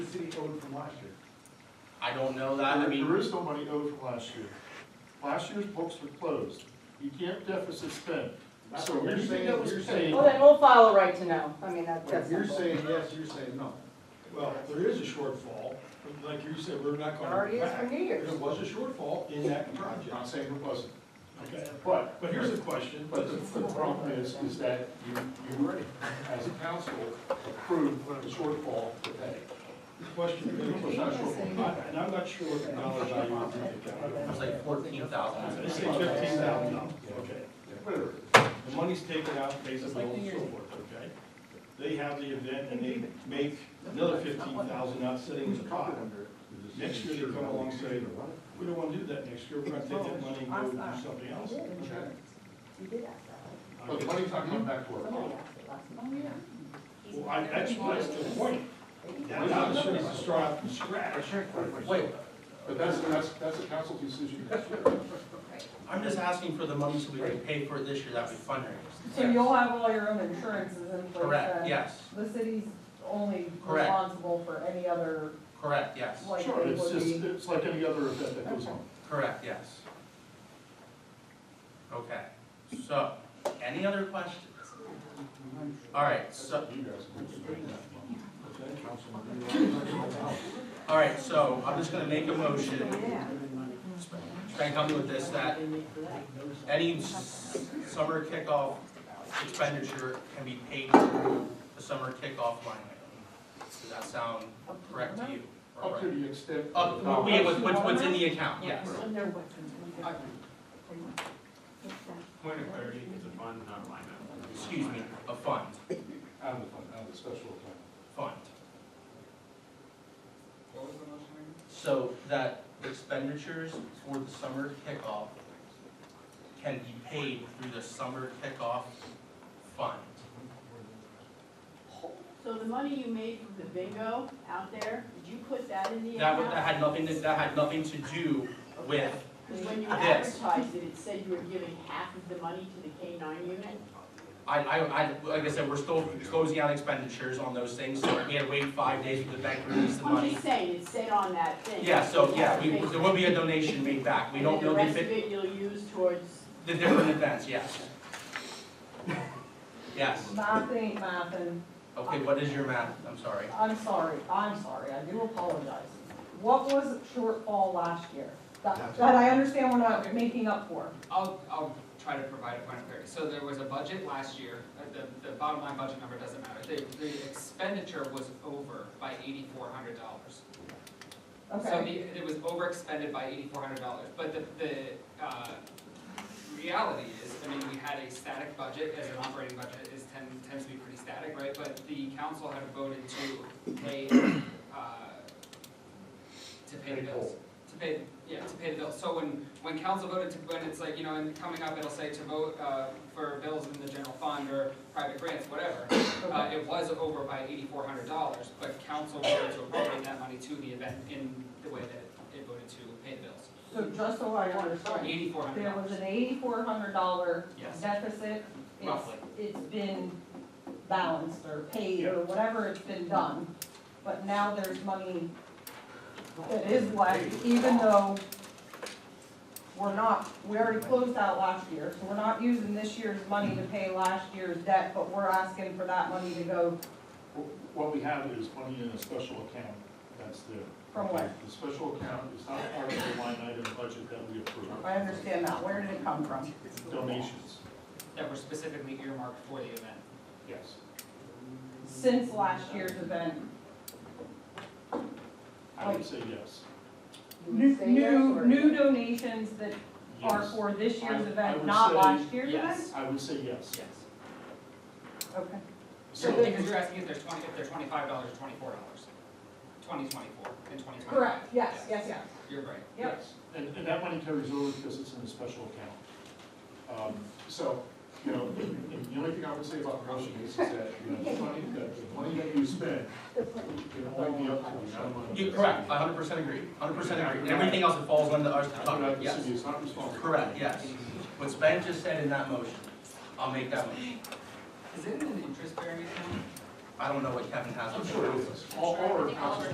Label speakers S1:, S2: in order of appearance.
S1: city owed from last year?
S2: I don't know that, I
S3: There-
S2: mean,
S3: There is no money owed from last year. Last year's books were closed. You can't deficit spend.
S1: That's
S3: So
S1: what you're
S3: anything
S1: saying,
S3: that was
S1: you're
S3: paid-
S1: saying,
S4: Oh,
S5: Well, then we'll file a right to know. I mean, that-
S1: when
S5: that's
S1: you're
S5: simple.
S1: saying yes, you're saying no.
S6: Well, there is a shortfall, but like you said, we're not
S5: There
S6: gonna.
S5: already is
S6: back.
S5: for New Year's.
S6: There was a shortfall in that project.
S3: Not saying it wasn't.
S6: Okay,
S3: But,
S6: but here's a question.
S3: but the, the problem is, is that you, you, as a council, approved the shortfall to pay.
S6: The question,
S3: It's
S6: is-
S3: not a shortfall.
S6: I- and I'm not sure what the dollar value of the
S2: it was like fourteen thousand.
S6: Let's say fifteen thousand dollars, okay.
S3: Whatever.
S6: The money's taken out, pays the bills and so forth, okay? They have the event and they make another fifteen thousand out sitting in the pot. Next year they come along and say, we don't wanna do that next year, we're gonna take that money and go do something else.
S5: You did ask that.
S3: But the money's not coming back to work.
S4: Oh,
S5: Somebody asked it last month.
S6: Well, I, that's why it's the point. Now, now it's gonna start out from scratch.
S2: Wait,
S3: But that's, that's, that's a council decision.
S2: I'm just asking for the money so we can pay for it this year that we fundraised.
S4: So you'll have all your uh, own insurances in place
S2: Correct,
S4: then?
S2: yes,
S4: The city's only
S2: Correct.
S4: responsible for any other,
S2: correct, yes,
S4: like,
S3: Sure,
S4: it
S3: it's
S4: would
S3: just,
S4: be.
S3: it's like any other event that goes on.
S2: correct, yes. Okay, so, any other questions? All right, so,
S3: You guys.
S2: all right, so I'm just gonna make a motion,
S5: Yeah.
S2: try and help me with this, that any s- summer kickoff expenditure can be paid through the summer kickoff line item. Does that sound correct to you? or
S3: Up to
S2: right?
S3: the extent.
S2: Up, well, yeah, what's, what's- what's in the account, yes.
S7: Point of clarity, it's a fund, not a line item.
S2: Excuse me, a fund,
S3: Out of the fund, out of the special account.
S2: fund. So that expenditures for the summer kickoff can be paid through the summer kickoff fund.
S8: So the money you made from the bingo out there, did you put that in the
S2: That, wa- that
S8: account?
S2: had nothing, to- that had nothing to do with
S8: Because when you
S2: Yes.
S8: advertised it, it said you were giving half of the money to the K nine unit.
S2: I, I, I, like I said, we're still closing out expenditures on those things, so we had to wait five days for the bank to release the
S8: I'm
S2: money.
S8: just saying, it said on that thing.
S2: Yeah, so, yeah, we,
S8: And
S2: there will be a donation made back, we
S8: then
S2: don't know the,
S8: The rest of
S2: fi-
S8: it you'll use towards,
S2: the different events, yes. Yes,
S4: Math ain't math, and
S2: okay, what is your math, I'm sorry,
S4: I'm sorry, I'm sorry, I do apologize. What was shortfall last year? That, that I understand we're not making up for.
S9: I'll, I'll try to provide a point of clarity. So there was a budget last year, uh, the, the bottom line budget number doesn't matter. The, the expenditure was over by eighty-four hundred dollars. So
S4: Okay,
S9: the, it was over expended by eighty-four hundred dollars, but the, the, uh, reality is, I mean, we had a static budget, as an operating budget is tend, tends to be pretty static, right? But the council had voted to pay, uh, to pay the bills. To pay, yeah, to pay the bills. So when, when council voted to, when it's like, you know, and coming up, it'll say to vote, uh, for bills in the general fund or private grants, whatever. Uh, it was over by eighty-four hundred dollars, but council voted to appropriate that money to the event in the way that it voted to pay the bills.
S4: so just so I understand,
S9: Eighty-four hundred
S4: there was
S9: dollars,
S4: an eighty-four hundred dollar
S9: yes,
S4: deficit. It's-
S9: Roughly.
S4: It's been balanced or paid or whatever it's been done, but now there's money that is left, even though we're not, we already closed out last year, so we're not using this year's money to pay last year's debt, but we're asking for that money to go
S3: What we have is money in a special account that's there.
S4: from where?
S3: The special account is not part of the line item budget that we approve.
S4: I understand that, where did it come from?
S3: Donations,
S9: that were specifically earmarked for the event.
S3: yes.
S4: Since last year's event,
S3: I
S4: Oh.
S3: would say yes.
S4: new,
S5: Say yes
S4: new,
S5: or-
S4: new donations that are
S3: Yes.
S4: for this year's
S3: I- I
S4: event,
S3: would
S4: not
S3: say
S4: last year's event?
S9: Yes,
S3: I would say yes.
S9: yes.
S4: Okay.
S9: So,
S3: So,
S9: because you're asking if there's twenty, if they're twenty-five dollars or twenty-four dollars, twenty twenty-four and twenty twenty-five.
S4: Correct, yes, yes, yes.
S9: You're right.
S4: Yep.
S3: yes, and, and that money carries over because it's in a special account. Um, So, you know, and the only thing I would say about promotion is that, you know, the money, that the money that you spend can only be up to the amount of money.
S2: you, correct, I hundred percent agree, hundred percent agree, and everything else that falls under us to
S3: That's
S2: talk
S3: what I
S2: about,
S3: would
S2: yes,
S3: say, it's not responsible.
S2: correct, yes. What Sven just said in that motion, I'll make that motion,
S9: Is it an interest-bearing account?
S2: I don't know what Kevin has.
S3: I'm sure it is. All, all our council